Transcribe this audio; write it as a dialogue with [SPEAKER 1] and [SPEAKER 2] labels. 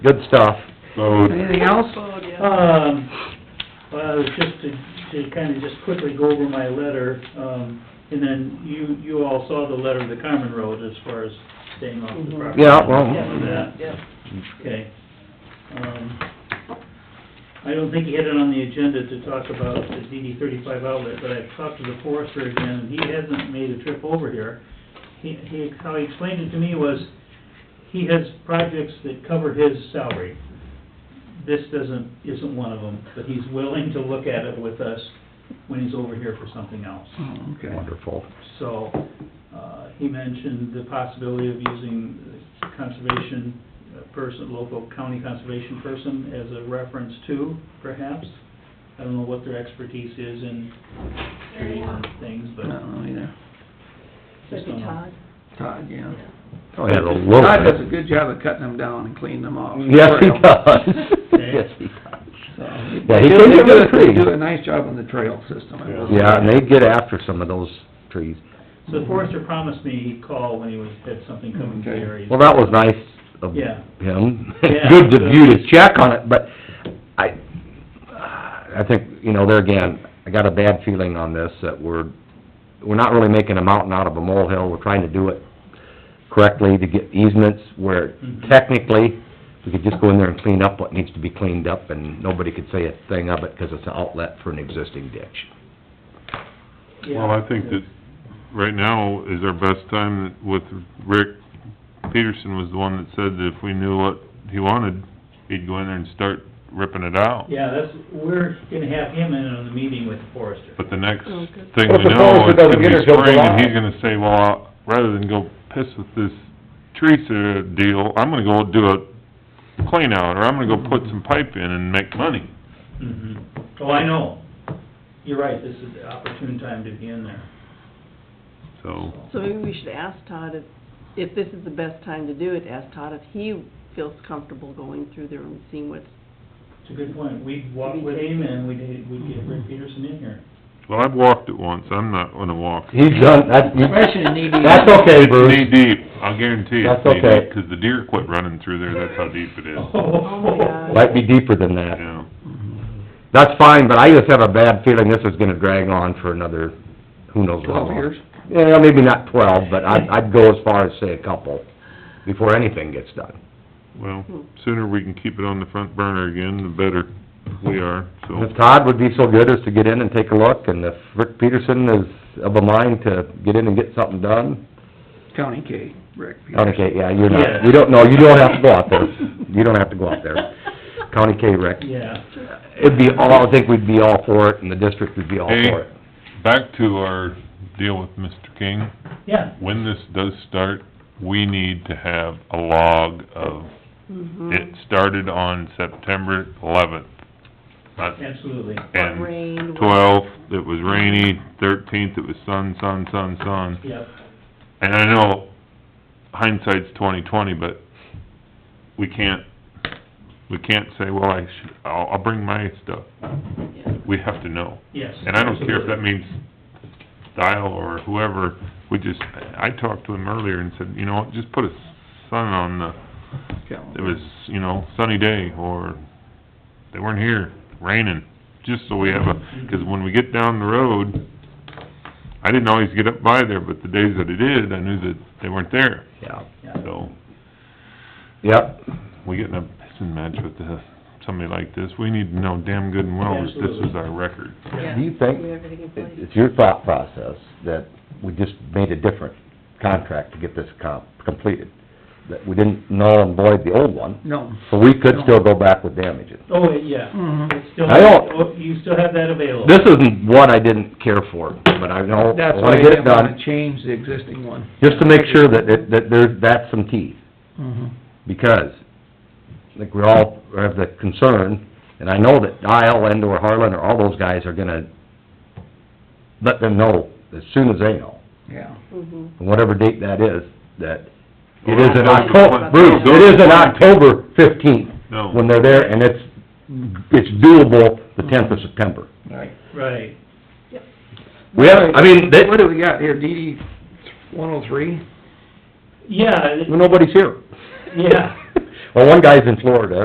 [SPEAKER 1] Good stuff.
[SPEAKER 2] Anything else?
[SPEAKER 3] Food, yeah.
[SPEAKER 4] Um, well, just to, to kinda just quickly go over my letter, um, and then you, you all saw the letter of the common road as far as staying off the property.
[SPEAKER 1] Yeah, well-
[SPEAKER 4] Yeah.
[SPEAKER 3] Yeah.
[SPEAKER 4] Okay. Um, I don't think he had it on the agenda to talk about the DD thirty-five outlet, but I've talked to the forester again, and he hasn't made a trip over here. He, he, how he explained it to me was, he has projects that cover his salary. This doesn't, isn't one of them, but he's willing to look at it with us when he's over here for something else.
[SPEAKER 2] Mm-hmm. Oh, Okay.
[SPEAKER 1] Wonderful.
[SPEAKER 4] So, uh, he mentioned the possibility of using conservation uh, person, local county conservation person as a reference too, perhaps. I don't know what their expertise is in tree and things,
[SPEAKER 2] I
[SPEAKER 4] but
[SPEAKER 2] don't know either.
[SPEAKER 4] just don't know.
[SPEAKER 2] Todd, yeah.
[SPEAKER 1] Oh, yeah, a little
[SPEAKER 2] Todd does a
[SPEAKER 1] bit.
[SPEAKER 2] good job of cutting them down and cleaning them off.
[SPEAKER 1] Yes, he does. Yes, he does.
[SPEAKER 2] So,
[SPEAKER 1] Yeah,
[SPEAKER 2] They
[SPEAKER 1] he
[SPEAKER 2] do-
[SPEAKER 1] can
[SPEAKER 2] they
[SPEAKER 1] get
[SPEAKER 2] do-
[SPEAKER 1] them clean.
[SPEAKER 2] They do a nice job on the trail system, I will say.
[SPEAKER 1] Yeah, and they get after some of those trees.
[SPEAKER 4] So the forester promised me he'd call when he was, had something coming to the
[SPEAKER 2] Okay.
[SPEAKER 4] area.
[SPEAKER 1] Well, that was nice of
[SPEAKER 4] Yeah.
[SPEAKER 1] him.
[SPEAKER 4] Yeah.
[SPEAKER 1] Good of you to check on it, but I, I think, you know, there again, I got a bad feeling on this, that we're, we're not really making a mountain out of a molehill, we're trying to do it correctly to get easements where
[SPEAKER 4] Mhm.
[SPEAKER 1] technically, we could just go in there and clean up what needs to be cleaned up, and nobody could say a thing of it, because it's an outlet for an existing ditch.
[SPEAKER 4] Yeah.
[SPEAKER 5] Well, I think that right now is our best time with Rick Peterson was the one that said that if we knew what he wanted, he'd go in there and start ripping it out.
[SPEAKER 4] Yeah, that's, we're gonna have him in on the meeting with the forester.
[SPEAKER 5] But the next
[SPEAKER 3] Oh, good.
[SPEAKER 5] thing
[SPEAKER 1] Well,
[SPEAKER 5] we
[SPEAKER 1] suppose
[SPEAKER 5] know,
[SPEAKER 1] it
[SPEAKER 5] it's
[SPEAKER 1] doesn't
[SPEAKER 5] gonna
[SPEAKER 1] get her
[SPEAKER 5] be
[SPEAKER 1] till
[SPEAKER 5] spring and
[SPEAKER 1] July.
[SPEAKER 5] he's gonna say, well, rather than go piss with this tree ser- deal, I'm gonna go do a clean out or I'm gonna go put some pipe in and make money.
[SPEAKER 4] Mhm. Oh, I know. You're right, this is the opportune time to be in there.
[SPEAKER 5] So,
[SPEAKER 3] So maybe we should ask Todd if, if this is the best time to do it, ask Todd if he feels comfortable going through there and seeing what's,
[SPEAKER 4] It's a good point. We'd walk with him and we'd, we'd get Rick Peterson in here.
[SPEAKER 5] well, I've walked it once, I'm not gonna walk.
[SPEAKER 1] He's done, that,
[SPEAKER 2] Question
[SPEAKER 4] E
[SPEAKER 2] in ED.
[SPEAKER 1] that's okay,
[SPEAKER 5] It's
[SPEAKER 1] Bruce.
[SPEAKER 5] knee deep, I'll guarantee you it's
[SPEAKER 1] That's
[SPEAKER 5] knee
[SPEAKER 1] okay.
[SPEAKER 5] deep, 'cause the deer quit running through there, that's how deep it is.
[SPEAKER 4] Oh,
[SPEAKER 3] my God.
[SPEAKER 1] Might be deeper than that.
[SPEAKER 5] Yeah,
[SPEAKER 1] That's fine, but I just have a bad feeling this is gonna drag on for another, who knows how long.
[SPEAKER 2] Twelve years.
[SPEAKER 1] Yeah, maybe not twelve, but I'd, I'd go as far as say a couple, before anything gets done.
[SPEAKER 5] well, sooner we can keep it on the front burner again, the better we are, so.
[SPEAKER 1] If Todd would be so good as to get in and take a look, and if Rick Peterson is of a mind to get in and get something done,
[SPEAKER 2] County K, Rick. Peterson.
[SPEAKER 1] County K, yeah, you're not,
[SPEAKER 4] Yeah.
[SPEAKER 1] you don't, no, you don't have to go out there. You don't have to go out there. County K, Rick.
[SPEAKER 4] Yeah.
[SPEAKER 1] It'd be all, I think we'd be all for it, and the district would be all
[SPEAKER 5] Hey,
[SPEAKER 1] for it.
[SPEAKER 5] back to our deal with Mr. King,
[SPEAKER 4] Yeah,
[SPEAKER 5] when this does start, we need to have a log of,
[SPEAKER 3] mhm,
[SPEAKER 5] it started on September eleventh. Not,
[SPEAKER 4] absolutely.
[SPEAKER 3] what
[SPEAKER 5] and
[SPEAKER 3] rain, what-
[SPEAKER 5] twelfth, it was rainy, thirteenth, it was sun, sun, sun, sun.
[SPEAKER 4] Yep.
[SPEAKER 5] And I know hindsight's twenty-twenty, but we can't, we can't say, well, I should, I'll, I'll bring my stuff.
[SPEAKER 3] yeah.
[SPEAKER 5] We have to know.
[SPEAKER 4] Yes.
[SPEAKER 5] And I don't care if that means Dial or whoever, we just, I talked to him earlier and said, you know, what, just put a sun on the, it was, you know, sunny day, or they weren't here, raining, just so we have a, because when we get down the road, I didn't always get up by there, but the days that I did, I knew that they weren't there,
[SPEAKER 1] Yeah,
[SPEAKER 4] Yeah.
[SPEAKER 5] so
[SPEAKER 1] yep,
[SPEAKER 5] we get in a pissing match with the, somebody like this, we need to know damn good and well that this is our record.
[SPEAKER 3] Yeah.
[SPEAKER 1] Do you think-
[SPEAKER 3] We have everything in
[SPEAKER 1] It-
[SPEAKER 3] place.
[SPEAKER 1] it's your thought process that we just made a different contract to get this com completed. That we didn't null and void the old one,
[SPEAKER 2] No.
[SPEAKER 1] so we could still go back with damages.
[SPEAKER 4] Oh, yeah.
[SPEAKER 2] Mhm.
[SPEAKER 4] It's still-
[SPEAKER 1] I don't-
[SPEAKER 4] oh, You still have that available.
[SPEAKER 1] This isn't what I didn't care for, but I know, I
[SPEAKER 2] That's why
[SPEAKER 1] wanna
[SPEAKER 2] I
[SPEAKER 1] get it
[SPEAKER 2] didn't wanna
[SPEAKER 1] done,
[SPEAKER 2] change the existing one.
[SPEAKER 1] just to make sure that, it- that there, that's some teeth.
[SPEAKER 2] Mhm.
[SPEAKER 1] because, I think we all have the concern, and I know that Dial and or Harlan or all those guys are gonna let them know as soon as they know,
[SPEAKER 2] Yeah.
[SPEAKER 3] Mhm.
[SPEAKER 1] and whatever date that is, that it is in
[SPEAKER 5] Well, those-
[SPEAKER 1] October, Bruce, it is in October fifteenth,
[SPEAKER 5] No.
[SPEAKER 1] when they're there, and it's, it's doable the tenth of September.
[SPEAKER 2] Right.
[SPEAKER 4] Right.
[SPEAKER 1] We have, I mean, that,
[SPEAKER 2] What do we got here, DD one oh three?
[SPEAKER 4] Yeah, it-
[SPEAKER 1] nobody's here.
[SPEAKER 4] yeah.
[SPEAKER 1] Well, one guy's in Florida,